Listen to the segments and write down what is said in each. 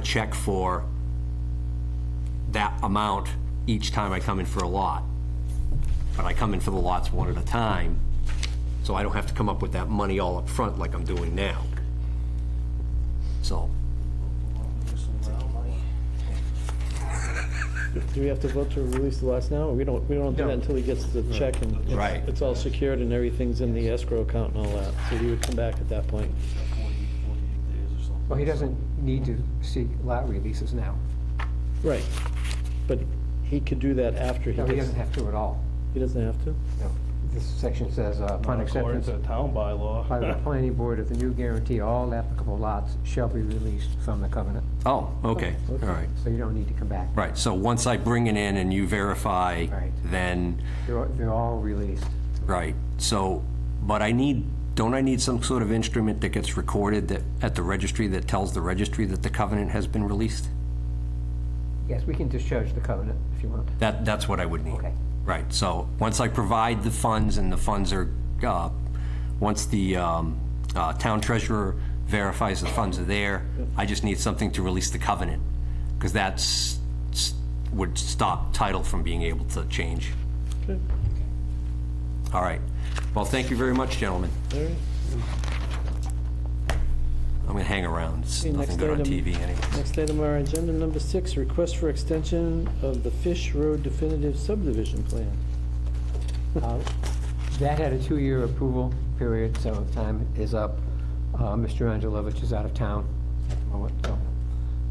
check for that amount each time I come in for a lot. But I come in for the lots one at a time, so I don't have to come up with that money all up front like I'm doing now. So, Do we have to vote to release the lots now? We don't, we don't do that until he gets the check and it's- Right. it's all secured and everything's in the escrow account and all that. So we would come back at that point. Well, he doesn't need to seek lot releases now. Right. But he could do that after he No, gets. he doesn't have to at all. He doesn't have to? No. This section says, uh, According upon acceptance to the town by the bylaw. planning board of the new guarantee, all applicable lots shall be released from the covenant. oh, okay, all right. So you don't need to come back. Right, so once I bring it in and you verify, Right. then, They're, they're all released. right, so, but I need, don't I need some sort of instrument that gets recorded that, at the registry that tells the registry that the covenant has been released? Yes, we can discharge the covenant if you want. That, that's what I would need. Okay. Right, so, once I provide the funds and the funds are, uh, once the, um, uh, town treasurer verifies the funds are there, I just need something to release the covenant, because that's, would stop title from being able to change. Okay. All right. Well, thank you very much, gentlemen. All right. I'm gonna hang around. It's Okay, nothing next good on item. TV anyway. Next item on our agenda, number six, request for extension of the Fish Road definitive subdivision plan. Uh, That had a two-year approval period, so the time is up. Uh, Mr. Angelovich is out of town at the moment, so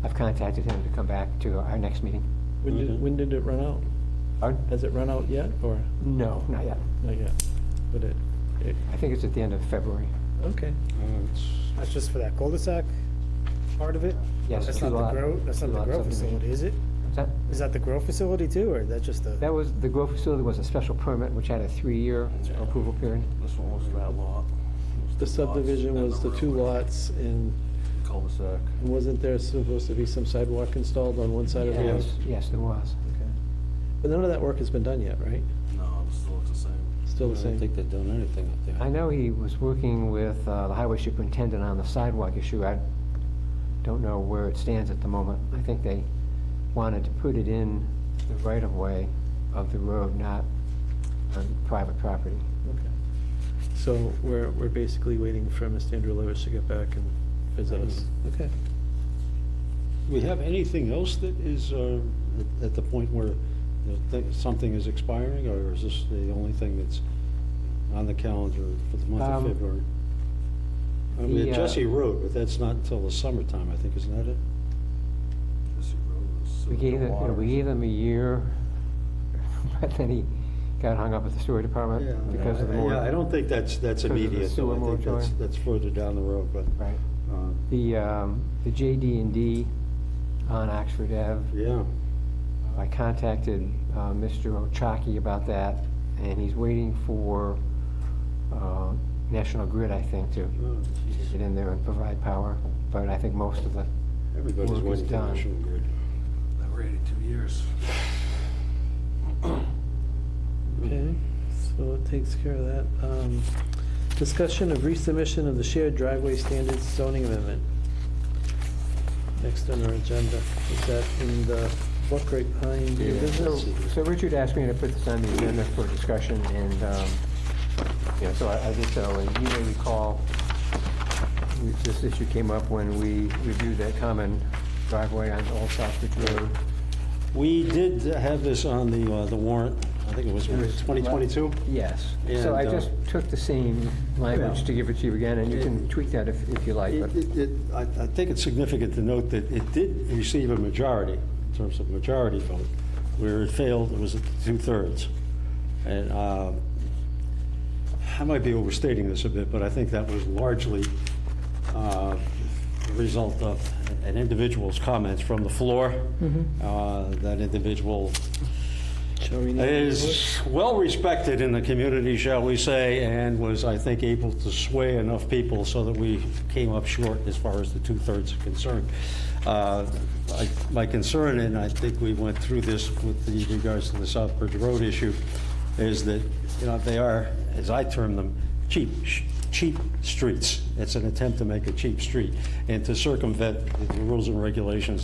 I've contacted him to come back to our next meeting. When Mm-hmm. did, when did it run out? Pardon? Has it run out yet or No, not yet. not yet? But it, it, I think it's at the end of February. okay. That's just for that cul-de-sac part of it? Yes, That's two not the lot- grow, that's not two the lot grow subdivision. facility, is it? What's that? Is that the grow facility too, or that's just the, That was, the grow facility was a special permit, which had a three-year approval period. This one was that lot. The subdivision was the two lots and Cul-de-sac. wasn't there supposed to be some sidewalk installed on one side of the road? Yes, yes, there was. But none of that work has been done yet, right? No, it still looks the same. Still the I don't same? think they've done anything up there. I know he was working with uh, the highway superintendent on the sidewalk issue. I don't know where it stands at the moment. I think they wanted to put it in the right-of-way of the road, not on private property. Okay. So we're, we're basically waiting for Mr. Andrew Levish to get back and visit us. Okay. Do we have anything else that is uh, at- at the point where the thi- something is expiring, or is this the only thing that's on the calendar for the month of Um, February? I the, mean, uh, Jesse Road, but that's not until the summertime, I think, isn't that it? We gave them, you know, we gave them a year, but then he got hung up at the sewer department because of the Yeah, I moratorium. don't think that's, Because that's of the immediate, though. sewer I think that's, moratorium. that's further down the road, but, Right. uh, The, um, the JD and D on Oxford Ave, uh, yeah. I contacted uh, Mr. Ochaki about that, and he's waiting for uh, National Grid, I think, to uh, get in there and provide power. But I think most of the, Everybody's Work is waiting for done. National Grid. That were eighty-two years. Okay, so it takes care of that. Um, Discussion of resubmission of the shared driveway standards zoning amendment. Next on our agenda. Is that in the book right behind your business? so Richard asked me to put this on the agenda for discussion, and, um, you know, so I I did so. And you may recall, we- this issue came up when we reviewed that common driveway on Old Southbridge Road. We did have this on the, uh, the warrant, I think it was was- 2022? Yes. And, So I uh, just took the same language to give it to you again, and you can tweak that if if you like. but- It- it- it- I I think it's significant to note that it did receive a majority, in terms of majority vote. Where it failed, it was at two-thirds. And um, I might be overstating this a bit, but I think that was largely uh, the result of an individual's comments from the floor. Uh, That individual Shall we name it? is well-respected in the community, shall we say, and was, I think, able to sway enough people so that we came up short as far as the two-thirds are concerned. Uh, I- My concern, and I think we went through this with the regards to the Southbridge Road issue, is that, you know, they are, as I term them, cheap, sh- cheap streets. It's an attempt to make a cheap street and to circumvent the rules and regulations